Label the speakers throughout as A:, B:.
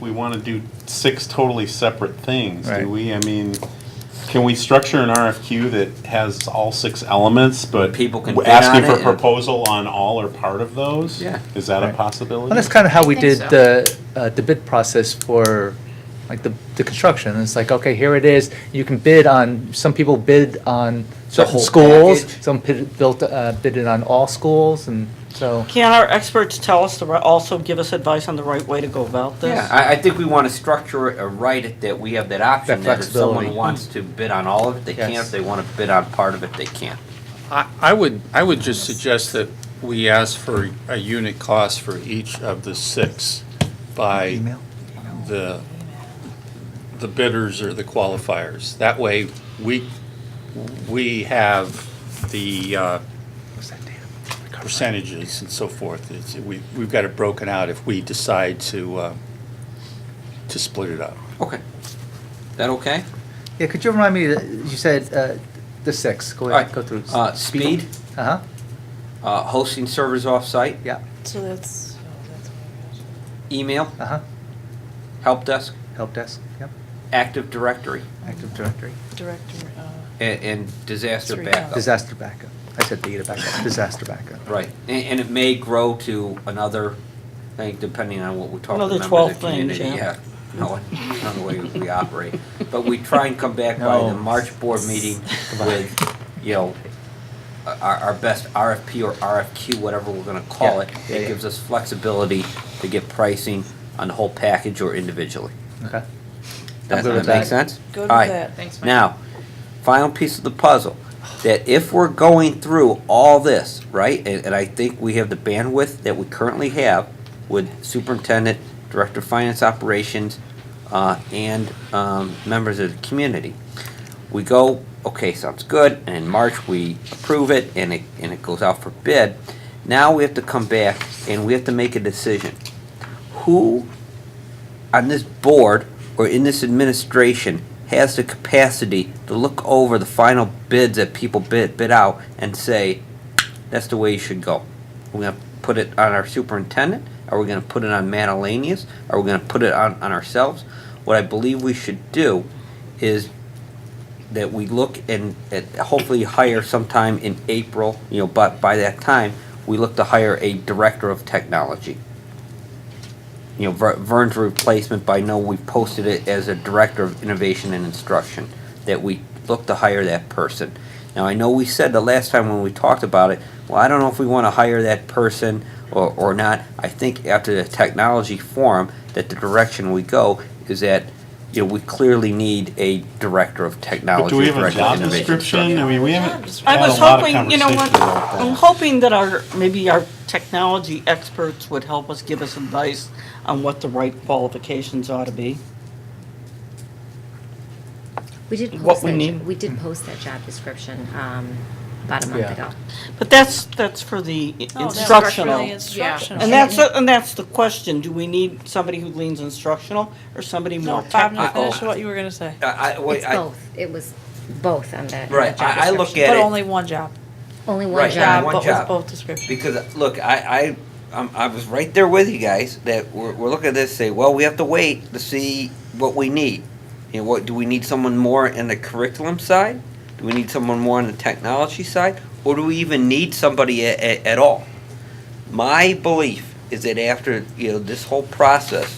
A: we want to do six totally separate things,
B: Right.
A: do we? I mean, can we structure an RFQ that has all six elements, but
C: People can
A: w-
C: bid on
A: asking
C: it
A: for
C: and-
A: proposal on all or part of those?
C: Yeah.
A: Is that a
B: Right.
A: possibility?
B: Well, that's kind of how we
D: I think
B: did
D: so.
B: the, uh, the bid process for, like, the, the construction. It's like, okay, here it is, you can bid on, some people bid on certain
C: whole
B: schools,
C: package.
B: some bid, built, uh, bid it on all schools, and so,
E: Can our experts tell us, the ri- also give us advice on the right way to go about this?
C: Yeah, I, I think we want to structure it or write it that we have that option,
B: That
C: that if someone
B: flexibility.
C: wants to bid on all of it, they can,
B: Yes.
C: if they want to bid on part of it, they can.
F: I I would, I would just suggest that we ask for a unit cost for each of the six by
B: email?
F: the, the bidders or the qualifiers. That way, we, we have the uh,
B: What's that data?
F: percentages and so forth. It's- we- We've got it broken out if we decide to, uh, to split it up.
C: Okay. That okay?
B: Yeah, could you remind me, uh, you said, uh, the six, go ahead,
C: Alright,
B: go through.
C: uh, speed.
B: Uh-huh,
C: Uh, hosting servers off-site,
B: yeah,
D: So that's,
C: email,
B: uh-huh,
C: help desk,
B: help desk, yep,
C: Active Directory,
B: Active Directory,
D: director, uh,
C: and, and disaster
D: Three
C: backup.
B: disaster backup. I said data backup, disaster backup.
C: Oh. Right, and, and it may grow to another thing, depending on what we talk to
E: Another
C: members of
E: 12
C: the
E: things,
C: community.
E: yeah.
C: No, not the way we operate, but we try and come back by the
B: No.
C: March board meeting with, you know, our, our best RFP or RFQ, whatever we're gonna call
B: Yeah,
C: it.
B: yeah,
C: It
B: yeah.
C: gives us flexibility to get pricing on the whole package or individually.
B: Okay.
C: Does
B: good
C: that
B: with
C: make
B: that.
C: sense?
D: Good with
C: All right.
D: that.
G: Thanks, Mike.
C: Now, final piece of the puzzle, that if we're going through all this, right, and, and I think we have the bandwidth that we currently have with superintendent, director of finance operations, uh, and, um, members of the community. We go, okay, sounds good, and in March, we approve it, and it, and it goes out for bid. Now we have to come back and we have to make a decision. Who on this board or in this administration has the capacity to look over the final bids that people bid, bid out and say, that's the way you should go. We're gonna put it on our superintendent, are we gonna put it on Manalanias, are we gonna put it on, on ourselves? What I believe we should do is that we look and, and hopefully hire sometime in April, you know, but by that time, we look to hire a director of technology you know, Ver- Vern's replacement, but I know we posted it as a director of innovation and instruction, that we look to hire that person. Now, I know we said the last time when we talked about it, well, I don't know if we want to hire that person or, or not. I think after the technology forum, that the direction we go is that, you know, we clearly need a director of
A: But
C: technology.
A: do we have a
C: director of
A: job
C: innovation
A: description? I mean, we haven't
E: I
A: had a
E: was
A: lot of
E: hoping, you know what,
A: conversation about that.
E: I'm hoping that our, maybe our technology experts would help us, give us advice on what the right qualifications ought to be.
H: We did post
E: What we
H: that, jo-
E: need.
H: we did post that job description um, about a month
B: Yeah.
H: ago.
E: But that's, that's for
D: Oh,
E: the
D: Really
E: instructional.
D: Instructional.
E: And that's, uh, and that's the question, do we need somebody who leans instructional or somebody
D: No,
E: more
D: Bob, you
E: technical?
D: finish what you were gonna say,
C: I, I, wait,
H: It's
C: I,
H: both, it was both on that on
C: Right,
H: that job
C: I- I look
H: description.
C: Get
D: but
C: it.
D: only one job.
H: Only one
C: Right,
H: job.
C: one
D: But
C: job.
D: with both descriptions.
C: Because look, I I I'm, I was right there with you guys that we're, we're looking at this say, well, we have to wait to see what we need. You know, what do we need someone more in the curriculum side? Do we need someone more on the technology side, or do we even need somebody a, a, at all? My belief is that after you know this whole process,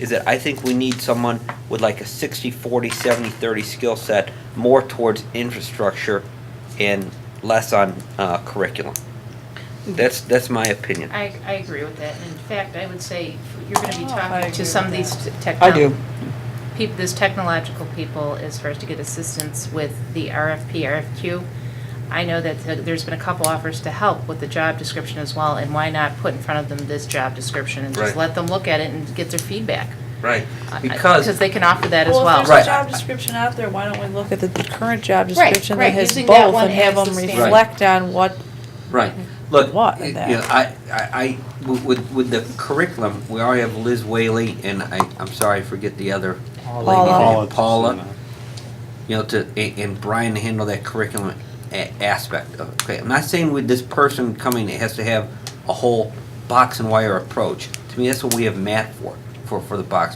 C: is that I think we need someone with like a 60, 40, 70, 30 skill set more towards infrastructure and less on uh, curriculum. That's that's my opinion.
G: Mm-hmm. I, I agree with that. In fact, I would say you're going to be
D: Oh, I
G: talking
D: agree
G: to some
D: with
G: of these
E: I do.
G: technology, peop this technological people as far as to get assistance with the RFP, RFQ. I know that th- there's been a couple offers to help with the job description as well, and why not put in front of them this job description and
C: Right.
G: just let them look at it and get their feedback?
C: Right.
G: I- I- Because
C: Because
G: they can offer that as well.
D: Well, if
C: Right.
D: there's a job description out there, why don't we look at the current job
G: Right,
D: description that
G: right,
D: has
G: using that
D: both
G: one
D: and have
G: as
D: them
G: the standard.
C: Right.
D: reflect on what,
C: right.
G: Mm-hmm.
C: Look,
D: What
C: y-
D: in
C: you
D: that?
C: know, I, I, I with with the curriculum, we already have Liz Whaley and I. I'm sorry, I forget the other lady.
D: Paula.
C: Paula.
A: Paula.
C: Paula. you know, to and, and Brian to handle that curriculum a- aspect of it. Okay, I'm not saying with this person coming, it has to have a whole box and wire approach. To me, that's what we have Matt for, for for the box